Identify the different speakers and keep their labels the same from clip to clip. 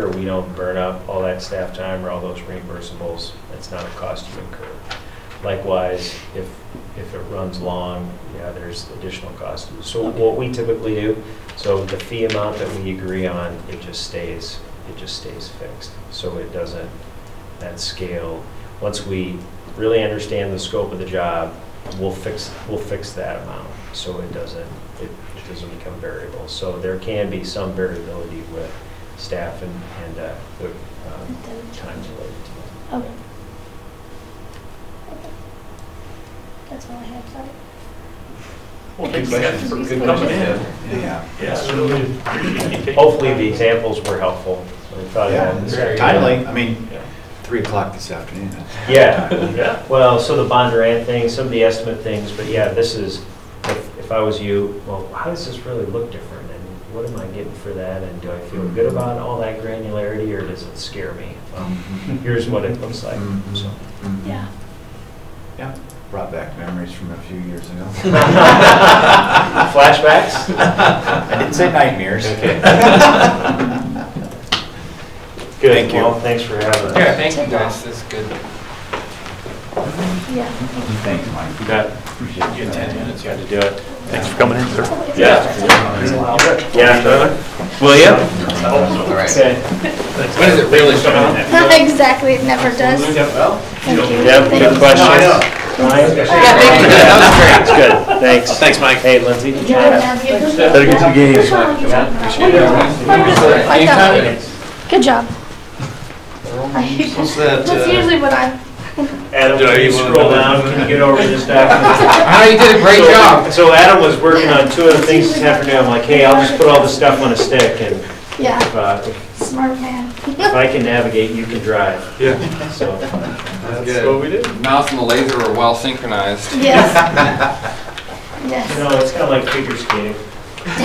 Speaker 1: sure we don't burn up all that staff time or all those reimbursables. It's not a cost you incur. Likewise, if, if it runs long, yeah, there's additional cost. So what we typically do, so the fee amount that we agree on, it just stays, it just stays fixed. So it doesn't, that scale, once we really understand the scope of the job, we'll fix, we'll fix that amount. So it doesn't, it it doesn't become variable. So there can be some variability with staff and, and uh, the um, times related to that.
Speaker 2: Okay. Okay. That's all I have, sorry.
Speaker 3: Well, thanks, guys, for good coming in.
Speaker 4: Yeah.
Speaker 3: Yeah, really appreciate you taking-
Speaker 1: Hopefully, the examples were helpful. We thought
Speaker 4: Oh, Yeah,
Speaker 1: about
Speaker 4: it's
Speaker 1: it.
Speaker 4: timely, I mean,
Speaker 3: Yeah.
Speaker 4: three o'clock this afternoon.
Speaker 1: Yeah,
Speaker 3: Yeah.
Speaker 1: well, so the Bondurant thing, some of the estimate things, but yeah, this is, if if I was you, well, how does this really look different? And what am I getting for that? And do I feel good about all that granularity, or does it scare me? Well,
Speaker 5: Mm-hmm.
Speaker 1: Here's what it looks like, so.
Speaker 4: Mhm.
Speaker 2: Yeah.
Speaker 4: Yeah, brought back memories from a few years ago.
Speaker 1: Flashbacks?
Speaker 4: I didn't say nightmares.
Speaker 3: Okay.
Speaker 1: Good,
Speaker 4: Thank you.
Speaker 1: Well, thanks for having us.
Speaker 5: Yeah, thank you guys, that's good.
Speaker 2: Yeah. thank you.
Speaker 4: Thanks, Mike.
Speaker 1: You bet.
Speaker 4: Appreciate
Speaker 3: You
Speaker 4: it.
Speaker 3: had 10 minutes, you had to do
Speaker 1: Do it.
Speaker 3: Thanks for coming in, sir.
Speaker 1: Yeah, Tyler?
Speaker 3: Will you?
Speaker 5: All right.
Speaker 1: Okay.
Speaker 5: When does it really show up?
Speaker 2: Exactly, it never does. Thank you.
Speaker 1: Deb,
Speaker 2: Thank
Speaker 1: good
Speaker 2: you.
Speaker 1: questions? Ryan?
Speaker 5: Yeah, thank you, that was great.
Speaker 1: Good, thanks. Thanks, Mike. Hey, Lindsay.
Speaker 2: Did you have a-
Speaker 4: Better get some games.
Speaker 2: What are you talking about? What are you talking about? I thought-
Speaker 5: Anytime.
Speaker 2: Good job.
Speaker 4: What's that?
Speaker 2: That's
Speaker 4: uh,
Speaker 2: usually what I,
Speaker 1: Adam,
Speaker 4: Do I
Speaker 1: can you
Speaker 4: use one of
Speaker 1: scroll
Speaker 4: those?
Speaker 1: down? Can you get over this document?
Speaker 5: Ah, you did a great
Speaker 1: So-
Speaker 5: job.
Speaker 1: So Adam was working on two other things this afternoon. I'm like, hey, I'll just put all this stuff on a stick and
Speaker 2: yeah,
Speaker 1: if, uh,
Speaker 2: smart man.
Speaker 1: if I can navigate, you can drive.
Speaker 3: Yeah.
Speaker 1: So,
Speaker 3: That's
Speaker 5: good.
Speaker 3: what we did.
Speaker 5: Mouse and the laser were well synchronized.
Speaker 2: Yes.
Speaker 1: you
Speaker 2: Yes.
Speaker 1: know, it's kind of like figure skating.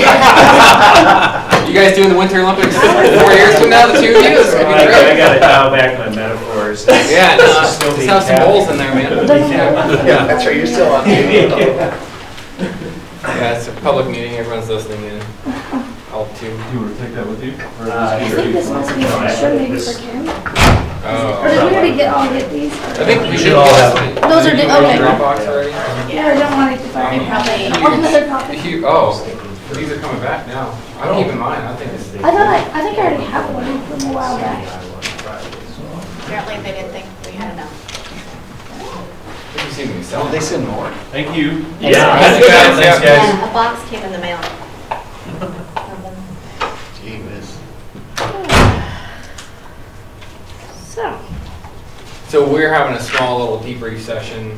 Speaker 5: You guys doing the Winter Olympics four years from now, the two of you, it's
Speaker 1: I
Speaker 5: gonna
Speaker 1: I
Speaker 5: be great.
Speaker 1: gotta dial back my metaphors.
Speaker 5: Yeah, no,
Speaker 1: This is still
Speaker 5: just
Speaker 1: being
Speaker 5: have some
Speaker 1: tapped.
Speaker 5: goals in there, man.
Speaker 2: Doesn't
Speaker 5: Yeah,
Speaker 2: matter.
Speaker 4: Yeah, that's right, you're still on.
Speaker 5: Yeah, it's a public meeting, everyone's listening in. All two.
Speaker 3: You want to take that with you?
Speaker 1: Uh,
Speaker 2: I think this must be, should maybe for Kim. Or
Speaker 5: Oh.
Speaker 2: did we already get, all get these?
Speaker 5: I think we
Speaker 4: You
Speaker 5: should
Speaker 4: should all have
Speaker 2: Those are di-
Speaker 5: Did you go to
Speaker 2: okay.
Speaker 5: Dropbox already?
Speaker 2: Yeah, I don't want to keep
Speaker 5: Um, I
Speaker 2: on
Speaker 5: mean,
Speaker 2: probably.
Speaker 5: huge.
Speaker 2: Another copy.
Speaker 5: Huge- Oh, these are coming back now. I don't even mind, I think it's.
Speaker 2: I thought I, I think I already have one from a while back.
Speaker 6: Apparently they didn't think we had enough.
Speaker 5: You see me
Speaker 4: Oh,
Speaker 5: selling.
Speaker 4: they send more.
Speaker 3: Thank you.
Speaker 1: Yeah.
Speaker 5: Thanks, guys.
Speaker 3: Thanks, guys.
Speaker 6: Yeah, a box came in the mail.
Speaker 4: Gee whiz.
Speaker 2: So,
Speaker 5: So we're having a small little debrief session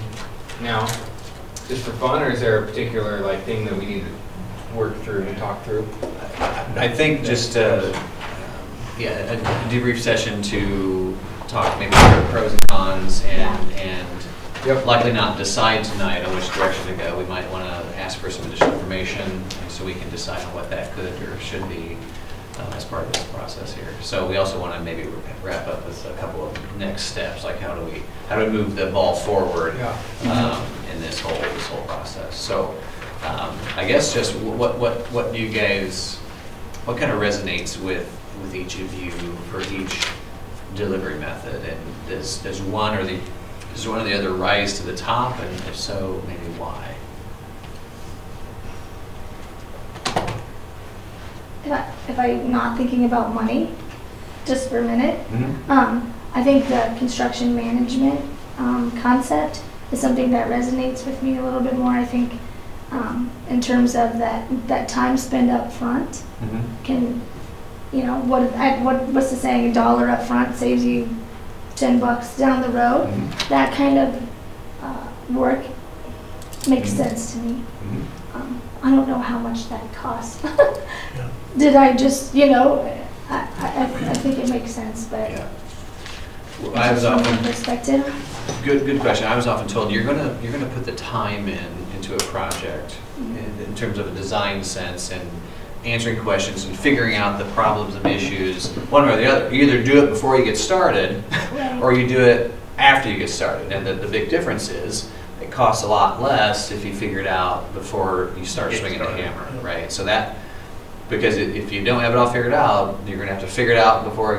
Speaker 5: now, just for fun, or is there a particular like thing that we need to work through and talk through?
Speaker 7: I think just, uh, yeah, a debrief session to talk maybe through pros and cons and,
Speaker 5: Yep.
Speaker 7: and likely not decide tonight on which direction to go. We might want to ask for some additional information so we can decide on what that could or should be um, as part of this process here. So we also want to maybe wrap up with a couple of next steps, like how do we, how do we move the ball forward? um, in this whole, this whole process. So um, I guess just wh- what, what, what do you guys, what kind of resonates with, with each of you for each delivery method? And does, does one or the, does one or the other rise to the top? And if so, maybe why?
Speaker 2: if I, if I'm not thinking about money, just for a minute, um, I think the construction management um, concept is something that resonates with me a little bit more. I think um, in terms of that that time spent up front can, you know, what I, what what's the saying? A dollar up front saves you ten bucks down the road. That kind of uh, work makes sense to me. Um, I don't know how much that cost. Did I just, you know, I, I, I- I think it makes sense, but.
Speaker 7: Well, I was
Speaker 2: from my
Speaker 7: often
Speaker 2: Perspective,
Speaker 7: Good, good question. I was often told, you're gonna, you're gonna put the time in, into a project
Speaker 1: Mm-hmm.
Speaker 7: in, in terms of a design sense and answering questions and figuring out the problems and issues, one way or the other. You either do it before you get started,
Speaker 2: Right.
Speaker 7: or you do it after you get started. And the, the big difference is, it costs a lot less if you figure it out before you start
Speaker 1: Get
Speaker 7: swinging the
Speaker 1: started.
Speaker 7: hammer, right? So that, because i- if you don't have it all figured out, you're gonna have to figure it out before